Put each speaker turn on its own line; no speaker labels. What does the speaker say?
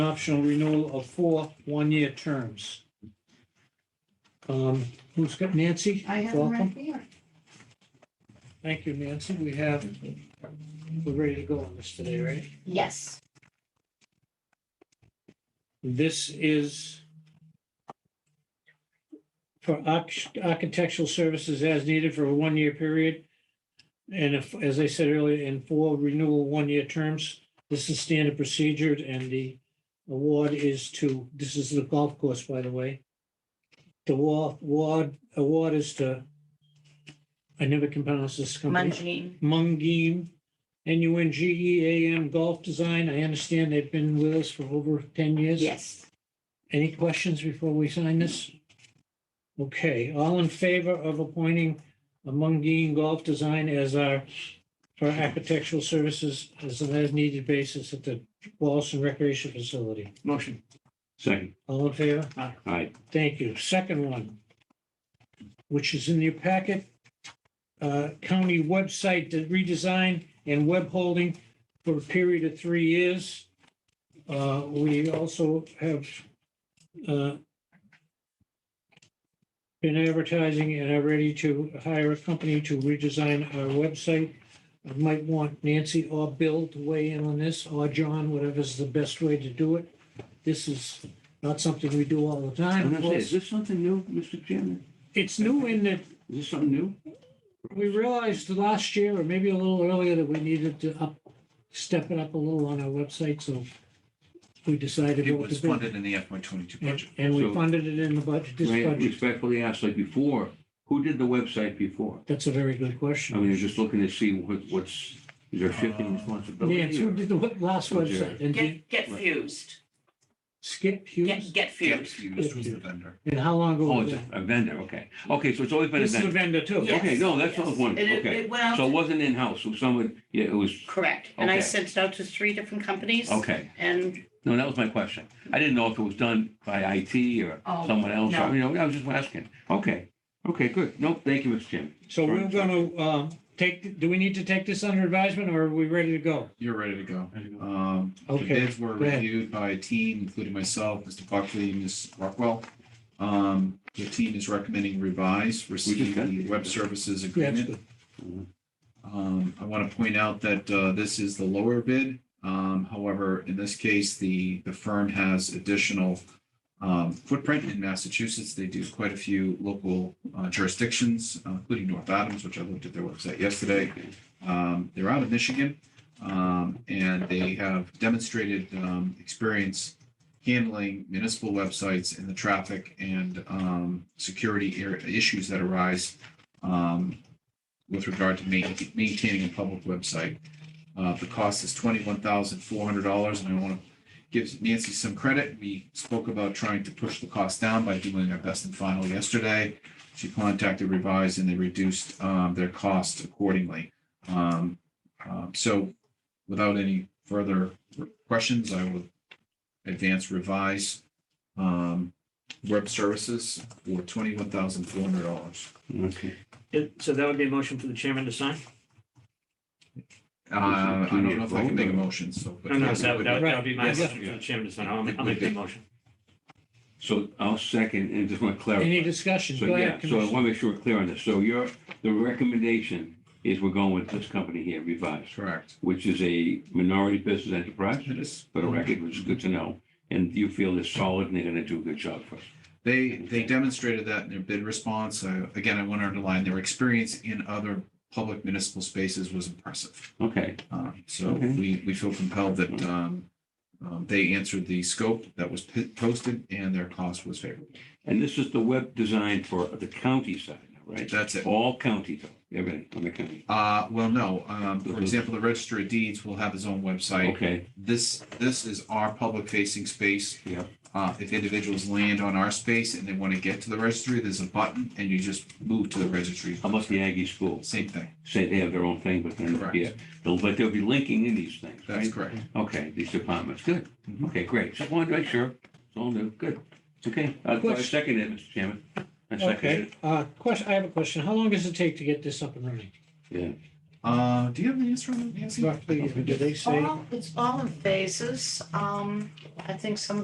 optional renewal of four one-year terms. Um, Who's got Nancy?
I have them
Welcome.
right here.
Thank you, Nancy. We have, we're ready to go on this today, right?
Yes,
This is for arch- architectural services as needed for a one-year period. And if, as I said earlier, in four renewal one-year terms, this is standard procedure and the award is to, this is the golf course, by the way. The wa- award, award is to, I never can pronounce this company.
Mungine.
Mungeen, N U N G E A M Golf Design. I understand they've been with us for over 10 years.
Yes.
Any questions before we sign this? Okay, all in favor of appointing Mungeen Golf Design as our, for architectural services as an as-needed basis at the Wallaston Recreation Facility?
Motion. Second.
All in favor?
Aye.
Thank you. Second one, which is in your packet, uh, county website redesign and web holding for a period of three years. Uh, We also have uh, been advertising and are ready to hire a company to redesign our website. I might want Nancy or Bill to weigh in on this, or John, whatever's the best way to do it. This is not something we do all the
I'm
time.
gonna say, is this something new, Mr. Chairman?
It's new in that
Is this something new?
we realized last year, or maybe a little earlier, that we needed to up, step it up a little on our website, so we decided
It
what to
was
do.
funded in the FY twenty-two
And-
budget.
And we
So-
funded it in the budget, this
May I
budget.
respectfully ask, like before, who did the website before?
That's a very good
I
question.
mean, you're just looking to see what, what's, is there shifting
Nancy,
responsibility?
who
or-
did the what- last
Was
website? And did
Get, get fused.
Skip
Get,
Hughes?
get
Yes,
fused.
used was the vendor.
And how long ago
Oh,
was
it's
that?
a vendor, okay. Okay, so it's always been a
This is a
vendor.
vendor too.
Yes,
Okay, no, that's
yes.
what I was wondering.
And it-
Okay.
It went out,
So it
to-
wasn't in-house, so someone, yeah, it was,
correct. And I
Okay.
sent it out to three different companies.
okay.
And
No, that was my question. I didn't know if it was done by IT or
Oh,
someone else.
no.
You know, I was just asking. Okay, okay, good. No, thank you, Mr. Chairman.
So we're gonna, um, take, do we need to take this under advisement or are we ready to go?
You're ready to go. Um, the
Okay,
bids were
go ahead.
reviewed by a team, including myself, Mr. Buckley, Ms. Rockwell. Um, the team is recommending revise, receive
got
the
it.
web services
Yeah, that's
agreement.
good.
Um, I want to point out that, uh, this is the lower bid. Um, however, in this case, the, the firm has additional, um, footprint in Massachusetts. They do quite a few local uh, jurisdictions, uh, including North Adams, which I looked at their website yesterday. Um, they're out of Michigan, um, and they have demonstrated, um, experience handling municipal websites and the traffic and, um, security ar- issues that arise, um, with regard to ma- maintaining a public website. Uh, the cost is twenty-one thousand four hundred dollars, and I want to give Nancy some credit. We spoke about trying to push the cost down by doing our best and final yesterday. She contacted Revise and they reduced, um, their cost accordingly. Um, um, so without any further questions, I will advance Revise, um, web services for twenty-one thousand four hundred dollars.
Okay.
It- So that would be a motion for the chairman to sign?
Uh, I don't know if I can make a motion, so. but-
No, no, that would, that would- that would be my
Right.
motion for the chairman to sign. I'll make I'll make the motion.
So I'll second and just want to clarify.
Any discussion?
So,
Go
yeah,
ahead,
so I
Commissioner.
want to make sure we're clear on this. So your, the recommendation is we're going with this company here, Revise,
Correct.
which is a minority business enterprise,
It is.
for the record, which is good to know. And you feel it's solid and they're going to do a good job for us.
They, they demonstrated that in their bid response. Uh, Again, I want to underline their experience in other public municipal spaces was impressive.
Okay,
Um, So
Okay.
we, we feel compelled that um, um, they answered the scope that was p- posted and their cost was favorable.
and this is the web design for the county side, right?
That's it.
All county, though, everything on the county.
Uh, Well, no, um, for
Mhm.
example, the Register of Deeds will have his own website.
Okay,
This, this is our public facing space.
Yep.
Uh, if individuals land on our space and they want to get to the registry, there's a button and you just move to the registry.
how about the Aggie schools?
Same thing.
Say they have their own thing, but then,
Correct.
yeah, they'll- but they'll be linking in these things, right?
That's correct.
Okay, these departments, good.
Mm-hmm.
Okay, great. Just wanted to make sure. It's all new, good. Okay, uh, I I
Question.
second it, Mr. Chairman. I second
Okay,
it.
uh, question, I have a question. How long does it take to get this up and running?
Yeah.
Uh, do you have the answer on that, Nancy?
Roughly, do they say?
All- It's all in phases. Um, I think some of